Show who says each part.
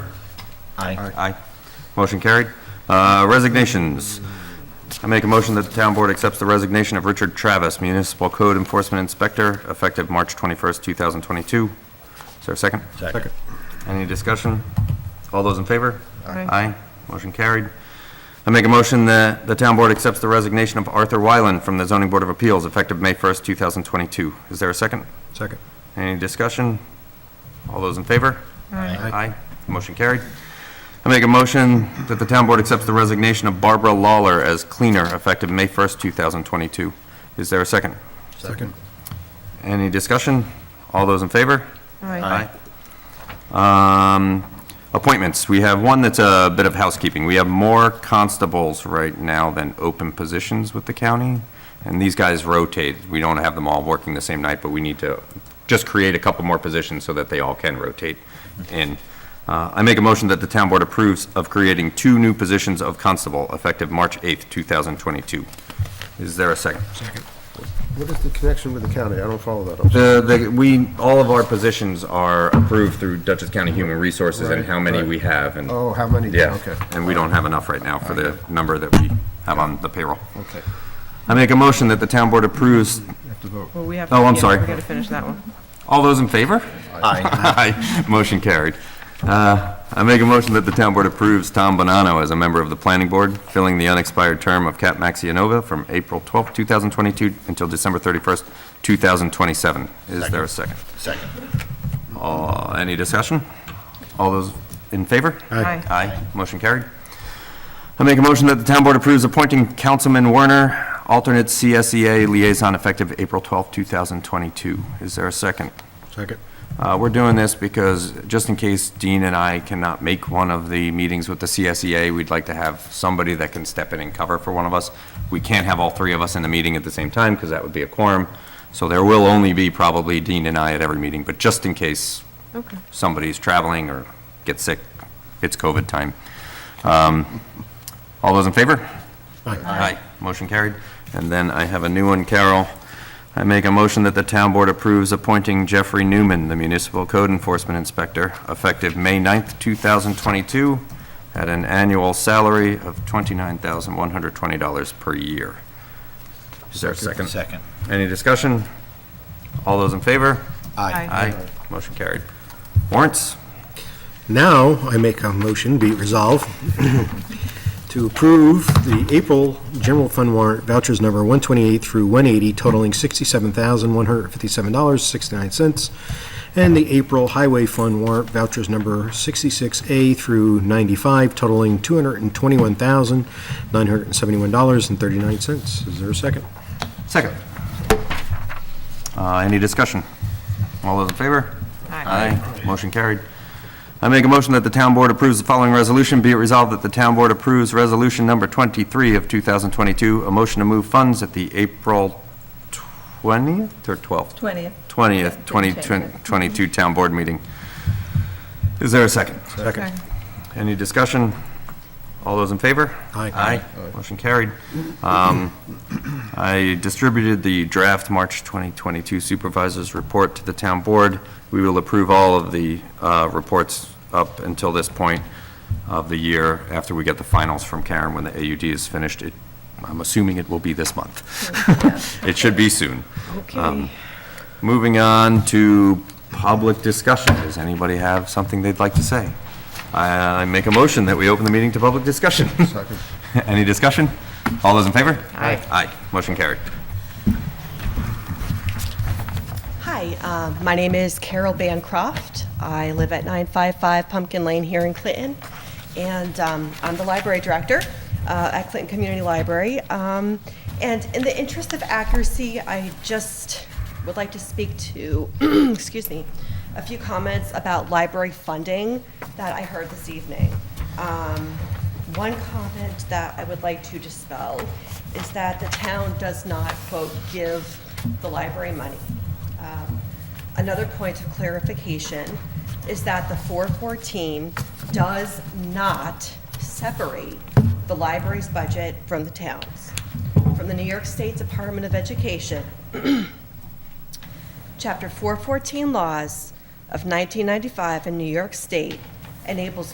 Speaker 1: Aye.
Speaker 2: Aye. Motion carried. Uh, Resignations. I make a motion that the town board accepts the resignation of Richard Travis, Municipal Code Enforcement Inspector, effective March 21st, 2022. Is there a second?
Speaker 1: Second.
Speaker 2: Any discussion? All those in favor?
Speaker 3: Aye.
Speaker 2: Aye. Motion carried. I make a motion that the town board accepts the resignation of Arthur Wyland from the Zoning Board of Appeals, effective May 1st, 2022. Is there a second?
Speaker 1: Second.
Speaker 2: Any discussion? All those in favor?
Speaker 1: Aye.
Speaker 2: Aye. Motion carried. I make a motion that the town board accepts the resignation of Barbara Lawler as cleaner effective May 1st, 2022. Is there a second?
Speaker 1: Second.
Speaker 2: Any discussion? All those in favor?
Speaker 3: Aye.
Speaker 1: Aye.
Speaker 2: Um, Appointments. We have one that's a bit of housekeeping. We have more constables right now than open positions with the county, and these guys rotate. We don't have them all working the same night, but we need to just create a couple more positions so that they all can rotate in. Uh, I make a motion that the town board approves of creating two new positions of constable effective March 8th, 2022. Is there a second?
Speaker 4: What is the connection with the county? I don't follow that. I'm sorry.
Speaker 2: The, the, we, all of our positions are approved through Dutchess County Human Resources and how many we have and.
Speaker 4: Oh, how many?
Speaker 2: Yeah,
Speaker 4: Okay.
Speaker 2: and we don't have enough right now for the number that we have on the payroll.
Speaker 4: Okay.
Speaker 2: I make a motion that the town board approves.
Speaker 4: Have to vote.
Speaker 3: Well, we have.
Speaker 2: Oh, I'm
Speaker 3: yeah,
Speaker 2: sorry.
Speaker 3: We gotta finish that one.
Speaker 2: All those in favor?
Speaker 1: Aye.
Speaker 2: Aye. Motion carried. Uh, I make a motion that the town board approves Tom Bonanno as a member of the planning board, filling the unexpired term of Cat Maxianova from April 12th, 2022 until December 31st, 2027. Is there a second?
Speaker 1: Second.
Speaker 2: Uh, Any discussion? All those in favor?
Speaker 3: Aye.
Speaker 2: Aye. Motion carried. I make a motion that the town board approves appointing Councilman Werner, alternate CSEA liaison effective April 12, 2022. Is there a second?
Speaker 1: Second.
Speaker 2: Uh, We're doing this because, just in case Dean and I cannot make one of the meetings with the CSEA, we'd like to have somebody that can step in and cover for one of us. We can't have all three of us in the meeting at the same time, because that would be a quorum. So there will only be probably Dean and I at every meeting, but just in case
Speaker 3: Okay.
Speaker 2: somebody's traveling or gets sick, it's COVID time. Um, All those in favor? Aye. Motion carried. And then I have a new one, Carol. I make a motion that the town board approves appointing Jeffrey Newman, the municipal code enforcement inspector, effective May 9th, 2022, at an annual salary of $29,120 per year. Is there a second?
Speaker 1: Second.
Speaker 2: Any discussion? All those in favor?
Speaker 1: Aye.
Speaker 2: Aye. Motion carried. Warrants?
Speaker 5: Now, I make a motion, be it resolved, to approve the April general fund warrant vouchers number 128 through 180 totaling $67,157.69, and the April highway fund warrant vouchers number 66A through 95 totaling $221,971.39. Is there a second?
Speaker 2: Second. Uh, Any discussion? All those in favor?
Speaker 3: Aye.
Speaker 2: Motion carried. I make a motion that the town board approves the following resolution. Be it resolved that the town board approves resolution number 23 of 2022, a motion to move funds at the April 20th or 12th?
Speaker 6: Twentieth.
Speaker 2: 20th, 2022 town board meeting. Is there a second?
Speaker 3: Second.
Speaker 2: Any discussion? All those in favor?
Speaker 5: Aye.
Speaker 2: Motion carried. Um, I distributed the draft March 2022 Supervisors Report to the Town Board. We will approve all of the uh, reports up until this point of the year, after we get the finals from Karen when the AUD is finished. It- I'm assuming it will be this month. It should be soon.
Speaker 3: Okay.
Speaker 2: Moving on to public discussion. Does anybody have something they'd like to say? I I make a motion that we open the meeting to public discussion.
Speaker 4: Second.
Speaker 2: Any discussion? All those in favor?
Speaker 3: Aye.
Speaker 2: Aye. Motion carried.
Speaker 6: Hi, um, my name is Carol Bancroft. I live at 955 Pumpkin Lane here in Clinton, and um, I'm the library director uh, at Clinton Community Library. Um, And in the interest of accuracy, I just would like to speak to, excuse me, a few comments about library funding that I heard this evening. Um, One comment that I would like to dispel is that the town does not, quote, "give the library money." Um, Another point of clarification is that the 414 does not separate the library's budget from the town's. From the New York State Department of Education, Chapter 414 laws of 1995 in New York State enables